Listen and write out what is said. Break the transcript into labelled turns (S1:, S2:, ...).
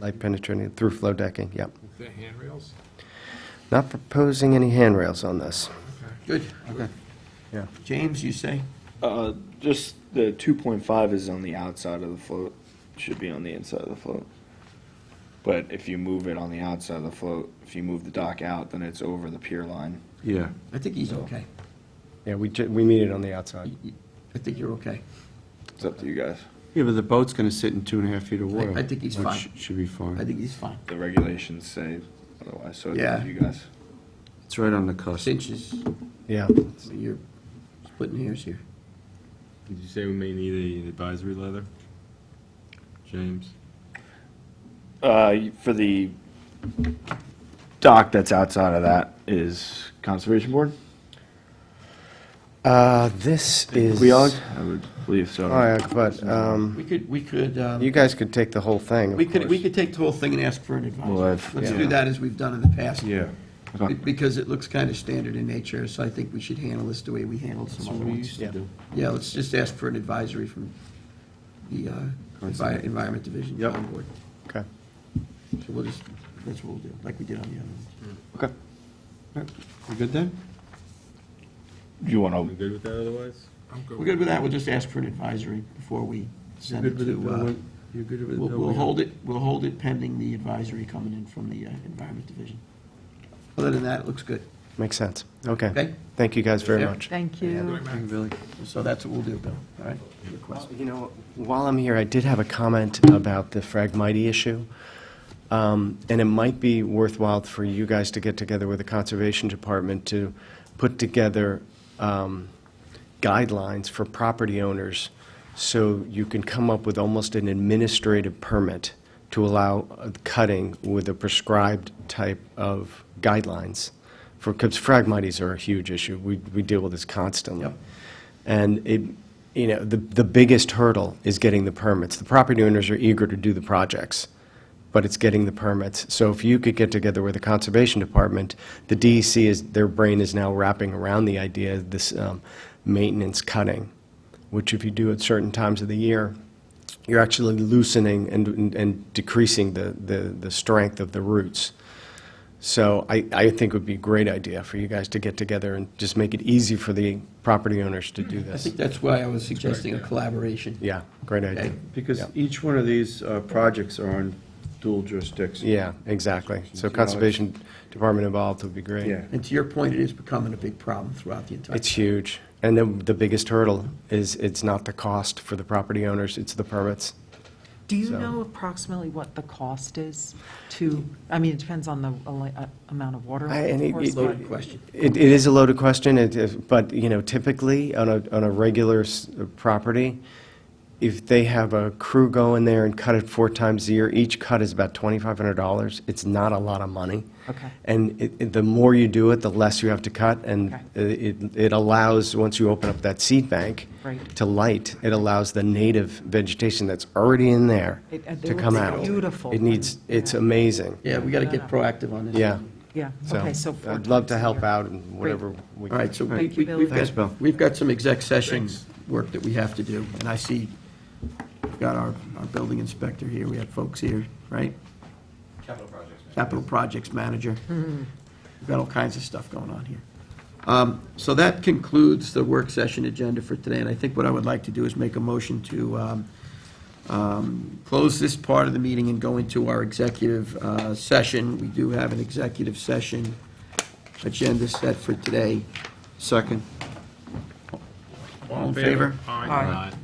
S1: Light penetrating through flow decking, yep.
S2: Is there handrails?
S1: Not proposing any handrails on this.
S3: Good. Okay.
S1: Yeah.
S3: James, you say?
S4: Uh, just the two point five is on the outside of the float, should be on the inside of the float. But if you move it on the outside of the float, if you move the dock out, then it's over the pier line.
S2: Yeah.
S3: I think he's okay.
S1: Yeah, we, ju- we meet it on the outside.
S3: You- you- I think you're okay.
S4: It's up to you guys.
S2: Yeah, but the boat's gonna sit in two and a half feet of water.
S3: I think he's
S2: which
S3: fine.
S2: Should be fine.
S3: I think he's fine.
S4: The regulations say otherwise, so it's up
S3: Yeah.
S4: to you guys.
S2: It's right on the cusp. Did
S3: Cinches,
S1: Yeah,
S3: you're splitting hairs here.
S2: you say we may need an advisory letter? James?
S4: Uh, for the dock that's outside of that is Conservation Board?
S1: uh, this is.
S4: Weog? I would believe so.
S1: All right, but, um,
S3: We could, we could, um,
S1: you guys could take the whole thing,
S3: we
S1: of
S3: could, we
S1: course.
S3: could take the whole thing and ask for an
S4: Well,
S3: advisory.
S4: I've-
S3: Let's
S4: yeah.
S3: do that as we've done in the past.
S2: Yeah.
S4: Okay.
S3: Be- Because it looks kind of standard in nature, so I think we should handle this the way we handled some other ones.
S1: Yeah.
S3: Yeah, let's just ask for an advisory from the uh, Envi- Environment Division.
S2: Yep.
S3: Town Board.
S1: Okay.
S3: So we'll just, that's what we'll do, like we did on the other ones.
S4: Okay.
S2: You good then?
S4: Do you wanna,
S2: good with that otherwise?
S3: We're good with that, we'll just ask for an advisory before we send it to, uh,
S2: You're good with it?
S3: we'll, we'll hold it, we'll hold it pending the advisory coming in from the uh, Environment Division. Other than that, it looks good,
S1: Makes sense. Okay.
S3: okay?
S1: Thank you guys very
S3: Yeah.
S1: much.
S5: Thank you.
S2: Really?
S3: So that's what we'll do, Bill, all right? Request.
S1: You know, while I'm here, I did have a comment about the fragmity issue. Um, And it might be worthwhile for you guys to get together with the Conservation Department to put together um, guidelines for property owners so you can come up with almost an administrative permit to allow uh, cutting with a prescribed type of guidelines. For, because fragmites are a huge issue. We, we deal with this constantly.
S3: Yep.
S1: And it, you know, the, the biggest hurdle is getting the permits. The property owners are eager to do the projects, but it's getting the permits. So if you could get together with the Conservation Department, the DEC is, their brain is now wrapping around the idea of this um, maintenance cutting, which if you do at certain times of the year, you're actually loosening and, and- and decreasing the, the, the strength of the roots. So I, I think it would be a great idea for you guys to get together and just make it easy for the property owners to do
S3: I
S1: this.
S3: think that's why I was suggesting a collaboration.
S1: Yeah, great idea.
S3: Okay.
S6: Because
S1: Yeah.
S6: each one of these uh, projects are on dual jurisdiction.
S1: Yeah, exactly. So Conservation Department involved would be great.
S6: Yeah.
S3: And to your point, it is becoming a big problem throughout the entire.
S1: It's huge. And then the biggest hurdle is it's not the cost for the property owners, it's the permits.
S5: Do you
S1: So-
S5: know approximately what the cost is to, I mean, it depends on the ele- uh, amount of water,
S1: I- and
S5: of
S1: it-
S5: course,
S1: it-
S5: but
S3: Loaded question.
S1: It, it is a loaded question, it is- but, you know, typically, on a, on a regular s- uh, property, if they have a crew go in there and cut it four times a year, each cut is about $2,500. It's not a lot of money.
S5: Okay.
S1: And it- it- the more you do it, the less you have to cut, and
S5: Okay.
S1: it, it allows, once you open up that seed bank
S5: Right.
S1: to light, it allows the native vegetation that's already in there
S5: It- it
S1: to
S5: looks
S1: come out.
S5: beautiful.
S1: It needs, it's amazing,
S3: Yeah, we got to get proactive on this.
S1: yeah.
S5: yeah,
S1: So
S5: okay, so four
S1: I'd love
S5: times
S1: to
S5: a
S1: help
S5: year.
S1: out in whatever we can.
S3: All right, so we-
S5: Thank you,
S3: we-
S5: Bill.
S3: we've
S5: Thanks,
S3: got, we've got some exec session work that we have to do, and I see, we've got our, our building inspector here, we have folks here, right? Capital Projects Manager. We've got all kinds of stuff going on here. Um, So that concludes the work session agenda for today, and I think what I would like to do is make a motion to um, um, close this part of the meeting and go into our executive uh, session. We do have an executive session agenda set for today.
S6: Second.
S3: All in favor?
S5: Aye.